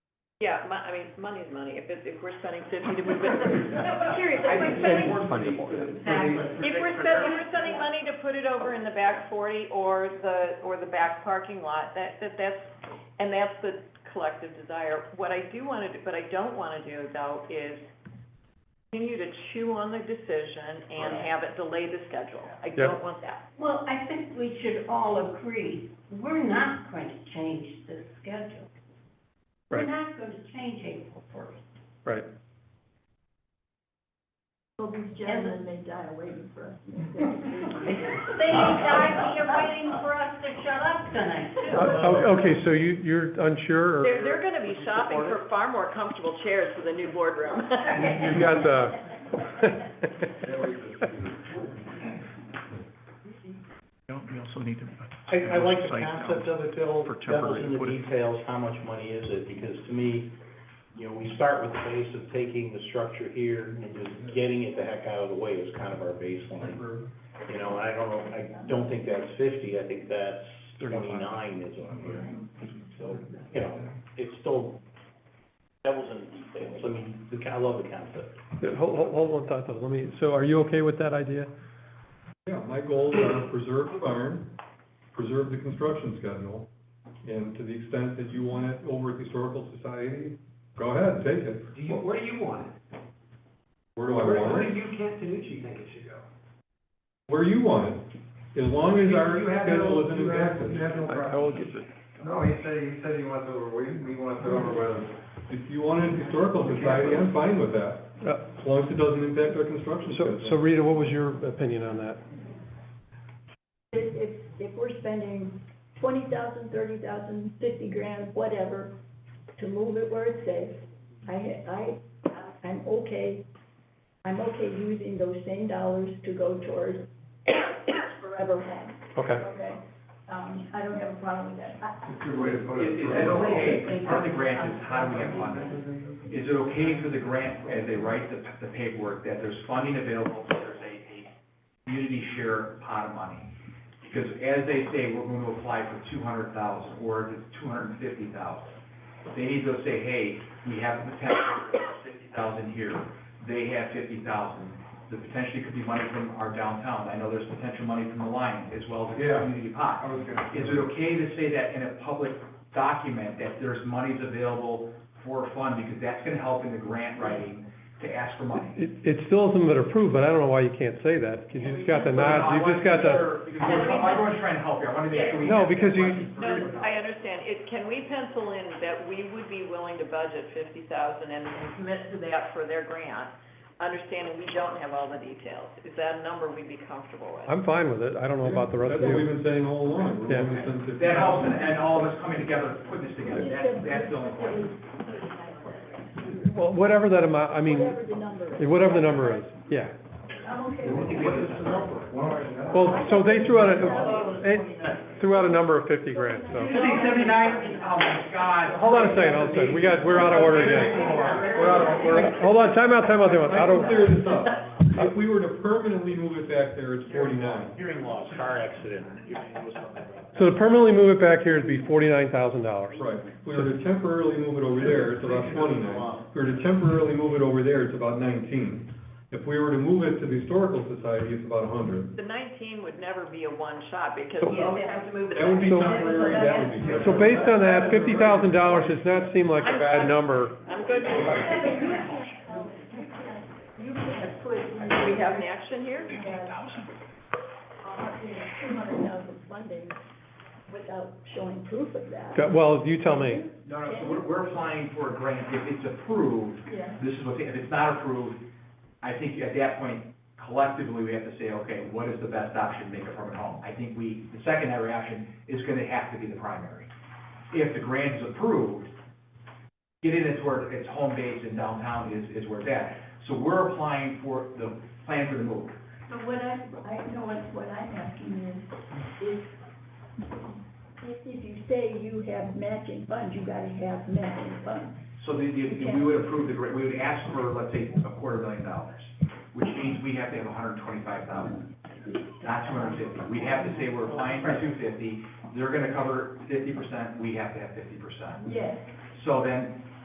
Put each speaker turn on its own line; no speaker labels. Yeah, mon- I mean, money's money, if it's, if we're spending fifty to move it, no, but seriously, if
I
we're
think
spending,
more money.
if we're spending, if we're spending money to put it over in the back forty or the, or the back parking lot, that, that, that's, and that's the collective desire. What I do wanna do, but I don't wanna do though, is continue to chew on the decision and
Right.
have it delay the schedule. I
Yeah.
don't want that.
Well, I think we should all agree, we're not going to change the schedule. We're
Right.
not going to change April first.
Right.
Well, these gentlemen may die waiting for us.
They died here waiting for us to shut up tonight,
O-
too.
o- Uh, oh, Okay, so you, you're unsure, or
They're, they're gonna be shopping for far more comfortable chairs for the new boardroom.
you've Uh, got the.
You al- you also need to.
I, I like the
Site down.
concept of it, Bill,
For
devil's
temporary
in the
footage.
details, how much money is it? Because to me, you know, we start with the base of taking the structure here and just getting it the heck out of the way is kind of our baseline. You know, I don't know, I don't think that's fifty, I think that's twenty-nine is what I'm hearing. So, you know, it's still devil's in the details, I mean, the- I love the concept.
Hold, hold, hold one thought though, let me, so are you okay with that idea?
Yeah, my goals are preserve the barn, preserve the construction schedule, and to the extent that you want it over at the Historical Society, go ahead, take it.
Do you, where do you want it?
Where do I
Where, where
want
do
it?
you, Camp Tanucci think it should go?
Where you want it, as long as our
You have
schedule
no-
is in
you have-
exactness.
you have no
I,
problem.
I will get,
No, he said, he said he wants over, we, we want it over with.
If you want it at the Historical Society, I'm fine with that,
uh,
as long as it doesn't impact our construction
so,
schedule.
so Rita, what was your opinion on that?
If, if, if we're spending twenty thousand, thirty thousand, fifty grand, whatever, to move it where it's safe, I, I, I'm okay, I'm okay using those same dollars to go towards forever home,
Okay,
okay? Um, I don't have a problem with that. I-
It's a good way to put it. Is it okay, part of the grant is how do we have funding? Is it okay for the grant, as they write the, the paperwork, that there's funding available, so there's a, a community share pot of money? Because as they say, we're going to apply for two hundred thousand, or if it's two hundred and fifty thousand. They need to say, hey, we have the potential for fifty thousand here, they have fifty thousand. The potentially could be money from our downtown, I know there's potential money from the Lions, as well as the
Yeah.
community pot
I was gonna-
is it okay to say that in a public document, that there's monies available for a fund? Because that's gonna help in the grant writing to ask for money.
it, it's still something that approved, but I don't know why you can't say that, because you just got the nod, you just got the,
Because we're- everyone's trying to help here, I wanna make sure we.
No,
have
because you-
that
No,
right.
I understand. It, can we pencil in that we would be willing to budget fifty thousand and and commit to that for their grant, understanding we don't have all the details? Is that a number we'd be comfortable with?
I'm fine with it, I don't know about the rest of
That's what we've
you.
been saying all along, we're
Yeah.
gonna spend fifty.
That helps, and, and all of us coming together, putting this together, that's, that's the only point.
Well, whatever that amount, I mean,
Whatever the number is.
whatever the number is, yeah.
I'm okay with it.
Well, so they threw out a, they threw out a number of fifty grand, so.
Seventy-nine, oh my God.
Hold on a second, hold on a second, we got, we're out of order again.
We're out of- we're-
Hold on, time out, time out, time out,
I
out
can clear
of,
this up. If we were to permanently move it back there, it's forty-nine.
Hearing loss, car accident.
so to permanently move it back here, it'd be forty-nine thousand dollars.
Right, if we were to temporarily move it over there, it's about twenty-nine. If we were to temporarily move it over there, it's about nineteen. If we were to move it to the Historical Society, it's about a hundred.
The nineteen would never be a one-shot because
So-
you always have to move it.
That would be
So-
temporary, that would be temporary.
So based on that, fifty thousand dollars does not seem like a bad number.
I'm good.
Yeah, but you can't, you can't put.
Do we have an action here?
uh, two hundred thousand funding without showing proof of that.
Got- Well, you tell me,
No, no, so we're, we're applying for a grant, if it's approved,
Yeah.
this is what, they- if it's not approved, I think at that point collectively, we have to say, okay, what is the best option, to make a permanent home? I think we, the secondary option is gonna have to be the primary. If the grant is approved, get in, it's where, it's home base and downtown is, is where it's at. So we're applying for the plan for the move.
So what I, I know what, what I'm asking is, is if, if you say you have matching funds, you gotta have matching funds.
So the, the, we would approve the grant, we would ask for, let's say, a quarter million dollars, which means we have to have hundred and twenty-five thousand, not two hundred and fifty. We have to say we're applying for two fifty, they're gonna cover fifty percent, we have to have fifty percent.
Yes,
So then,